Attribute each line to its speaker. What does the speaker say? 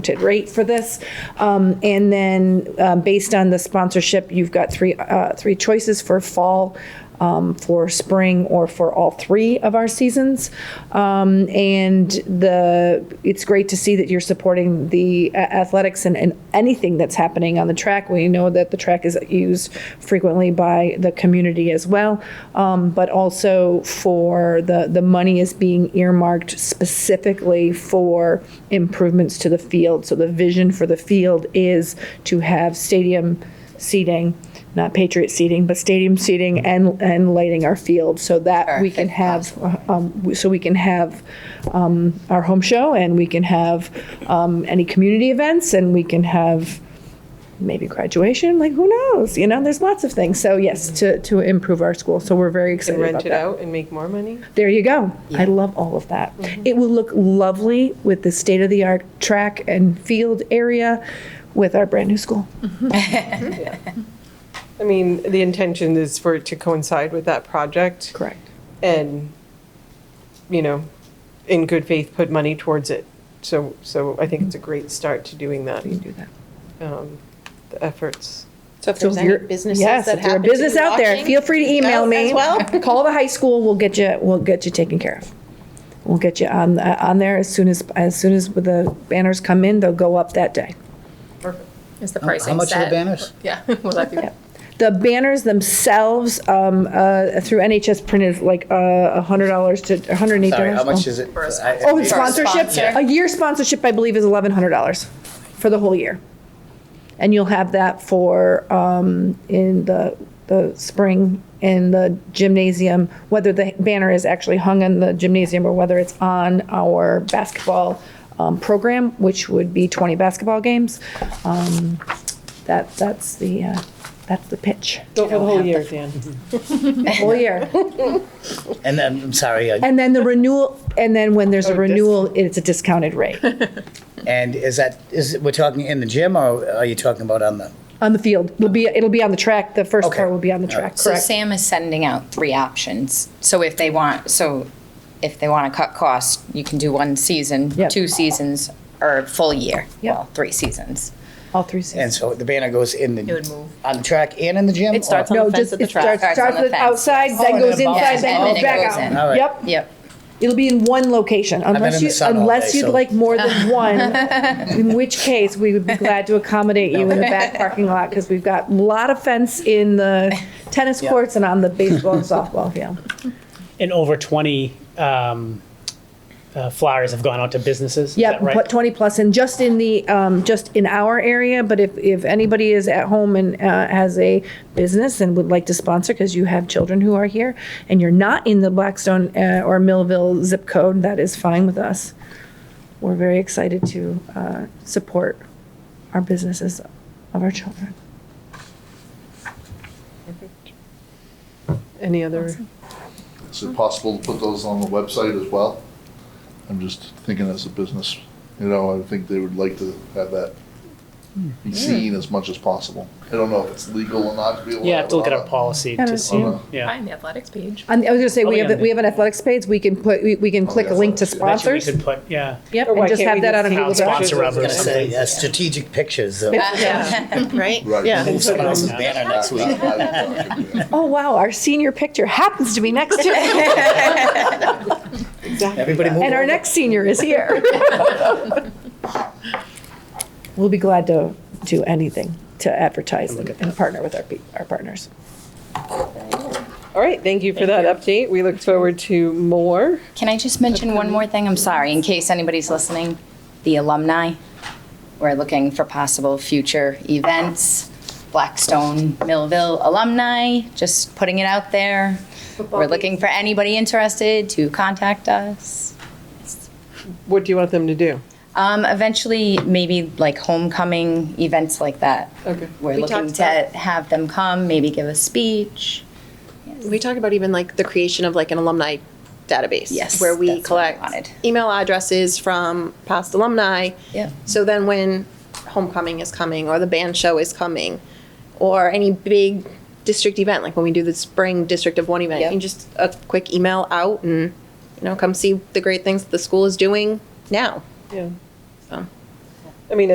Speaker 1: discounted rate for this. Um, And then, uh, based on the sponsorship, you've got three, uh, three choices for fall, um, for spring, or for all three of our seasons. Um, And the, it's great to see that you're supporting the a- athletics and, and anything that's happening on the track. We know that the track is used frequently by the community as well, um, but also for the, the money is being earmarked specifically for improvements to the field. So the vision for the field is to have stadium seating, not Patriot seating, but stadium seating and, and lighting our field so that we can have, um, so we can have um, our home show and we can have um, any community events and we can have maybe graduation, like who knows? You know, there's lots of things. So yes, to, to improve our school. So we're very excited
Speaker 2: And
Speaker 1: about
Speaker 2: rent it
Speaker 1: that.
Speaker 2: out and make more money?
Speaker 1: There you go. I love all of that.
Speaker 3: Mm-hmm.
Speaker 1: It will look lovely with the state of the art track and field area with our brand new school.
Speaker 2: I mean, the intention is for it to coincide with that project
Speaker 1: Correct.
Speaker 2: and, you know, in good faith, put money towards it. So, so I think it's a great start to doing that,
Speaker 1: We can do that.
Speaker 2: um, the efforts.
Speaker 3: So if
Speaker 1: So
Speaker 3: there's
Speaker 1: if
Speaker 3: any
Speaker 1: you're-
Speaker 3: businesses
Speaker 1: yes,
Speaker 3: that
Speaker 1: if you're a
Speaker 3: happen to be
Speaker 1: business out there,
Speaker 3: watching
Speaker 1: feel free to email
Speaker 3: us
Speaker 1: me.
Speaker 3: As well.
Speaker 1: Call the high school. We'll get you. We'll get you taken care of. We'll get you on uh, on there as soon as as soon as the banners come in. They'll go up that day.
Speaker 4: Is the
Speaker 5: How-
Speaker 4: pricing
Speaker 5: How much are
Speaker 4: set?
Speaker 5: the banners?
Speaker 4: Yeah, will that be?
Speaker 1: The banners themselves um, uh, through NHS print is like uh, hundred dollars to one hundred and eight
Speaker 5: Sorry,
Speaker 1: dollars.
Speaker 5: how much is it?
Speaker 4: For a sponsor.
Speaker 5: I- I-
Speaker 1: Oh, and
Speaker 5: it's-
Speaker 1: sponsorship.
Speaker 4: sponsor.
Speaker 1: A year sponsorship, I believe, is eleven hundred dollars for the whole year, and you'll have that for um, in the the spring in the gymnasium, whether the banner is actually hung in the gymnasium or whether it's on our basketball um, program, which would be twenty basketball games. Um, that that's the uh, that's the pitch.
Speaker 2: Go for the whole year, Dan.
Speaker 1: Whole year.
Speaker 5: And then, I'm sorry, uh,
Speaker 1: And then the renewal, and then when there's a renewal, it's a discounted rate
Speaker 5: and is that, is, it- we're talking in the gym or are you talking about on the?
Speaker 1: on the field. Will be, it'll be on the track. The first
Speaker 5: Okay.
Speaker 1: part will be on the track,
Speaker 6: So
Speaker 1: correct?
Speaker 6: Sam is sending out three options. So if they want, so if they want to cut costs, you can do one season,
Speaker 1: Yep.
Speaker 6: two seasons, or a full year.
Speaker 1: Yep.
Speaker 6: Well, three seasons.
Speaker 1: All three
Speaker 5: And
Speaker 1: seasons.
Speaker 5: so the banner goes in the.
Speaker 4: It would move.
Speaker 5: On the track and in the gym?
Speaker 4: It starts on
Speaker 5: or-
Speaker 1: No,
Speaker 4: the fence
Speaker 1: just,
Speaker 4: at the
Speaker 1: it starts,
Speaker 4: track.
Speaker 6: Starts
Speaker 1: starts
Speaker 6: on the
Speaker 1: with
Speaker 6: fence.
Speaker 1: outside,
Speaker 5: Oh,
Speaker 1: then
Speaker 5: and then
Speaker 1: goes
Speaker 5: it
Speaker 1: inside,
Speaker 5: bounces
Speaker 1: then
Speaker 6: off.
Speaker 1: goes back
Speaker 6: And then it goes in.
Speaker 5: All
Speaker 1: out.
Speaker 5: right.
Speaker 1: Yep,
Speaker 6: Yep.
Speaker 1: it'll be in one location
Speaker 5: in
Speaker 1: unless
Speaker 5: the
Speaker 1: you,
Speaker 5: sun all
Speaker 1: unless
Speaker 5: day,
Speaker 1: you'd
Speaker 5: so-
Speaker 1: like more than one. In which case, we would be glad to accommodate you in the back parking lot because we've got a lot of fence in the tennis
Speaker 5: Yeah.
Speaker 1: courts and on the baseball and softball field.
Speaker 7: and over 20 um, uh, flyers have gone out to businesses. Is
Speaker 1: Yep,
Speaker 7: that right?
Speaker 1: put 20 plus in, just in the, um, just in our area, but if, if anybody is at home and uh, has a business and would like to sponsor, because you have children who are here, and you're not in the Blackstone uh, or Millville zip code, that is fine with us. We're very excited to uh, support our businesses of our children.
Speaker 2: Any other?
Speaker 8: Is it possible to put those on the website as well? I'm just thinking as a business, you know, I think they would like to have that be seen as much as possible. I don't know if it's legal or not to be allowed.
Speaker 7: Yeah, I have to look at our
Speaker 8: Paul.
Speaker 7: policy
Speaker 1: Yeah,
Speaker 7: to
Speaker 1: that's-
Speaker 7: see.
Speaker 8: yeah.
Speaker 7: Yeah.
Speaker 4: Find the athletics page.
Speaker 1: And I was gonna say, we
Speaker 7: Probably
Speaker 1: have,
Speaker 7: on
Speaker 1: we have an athletics page, we can put, we we can click a link to
Speaker 8: athletics, yeah.
Speaker 7: I bet you we
Speaker 1: sponsors.
Speaker 7: could put, yeah.
Speaker 1: Yep,
Speaker 2: Or Oh, why
Speaker 1: and just
Speaker 2: can't
Speaker 1: have
Speaker 2: we
Speaker 1: that
Speaker 2: just
Speaker 1: on a
Speaker 2: take
Speaker 1: Google
Speaker 2: the
Speaker 1: Doc.
Speaker 2: pictures
Speaker 7: Sponsor
Speaker 2: of
Speaker 7: others.
Speaker 2: it?
Speaker 5: Gonna say, yeah, strategic pictures. uh,
Speaker 4: Right?
Speaker 8: Right.
Speaker 2: Yeah.
Speaker 8: Move
Speaker 5: Someone else's
Speaker 7: Yeah.
Speaker 5: banner next week.
Speaker 1: Oh, wow, our senior picture happens to be next to it.
Speaker 5: Everybody move
Speaker 1: And our
Speaker 5: over.
Speaker 1: next senior is here. We'll be glad to do anything to advertise and and partner with our, pe- our partners.
Speaker 2: All right, thank you for that update. We look forward to more.
Speaker 6: Can I just mention one more thing? I'm sorry, in case anybody's listening. The alumni, we're looking for possible future events. Blackstone Millville alumni, just putting it out there. We're looking for anybody interested to contact us.
Speaker 2: What do you want them to do?
Speaker 6: Um, eventually, maybe like homecoming events like that.
Speaker 2: Okay.
Speaker 6: We're
Speaker 3: We
Speaker 6: looking
Speaker 3: talked
Speaker 6: to
Speaker 3: about-
Speaker 6: have them come, maybe give a speech.
Speaker 3: We talked about even like the creation of like an alumni database.
Speaker 6: Yes,
Speaker 3: Where we
Speaker 6: that's what I
Speaker 3: collect
Speaker 6: wanted.
Speaker 3: email addresses from past alumni.
Speaker 6: Yep.
Speaker 3: So then when homecoming is coming or the band show is coming or any big district event, like when we do the spring district of one event, you
Speaker 6: Yep.
Speaker 3: can just uh, a quick email out and, you know, come see the great things that the school is doing now.
Speaker 2: Yeah.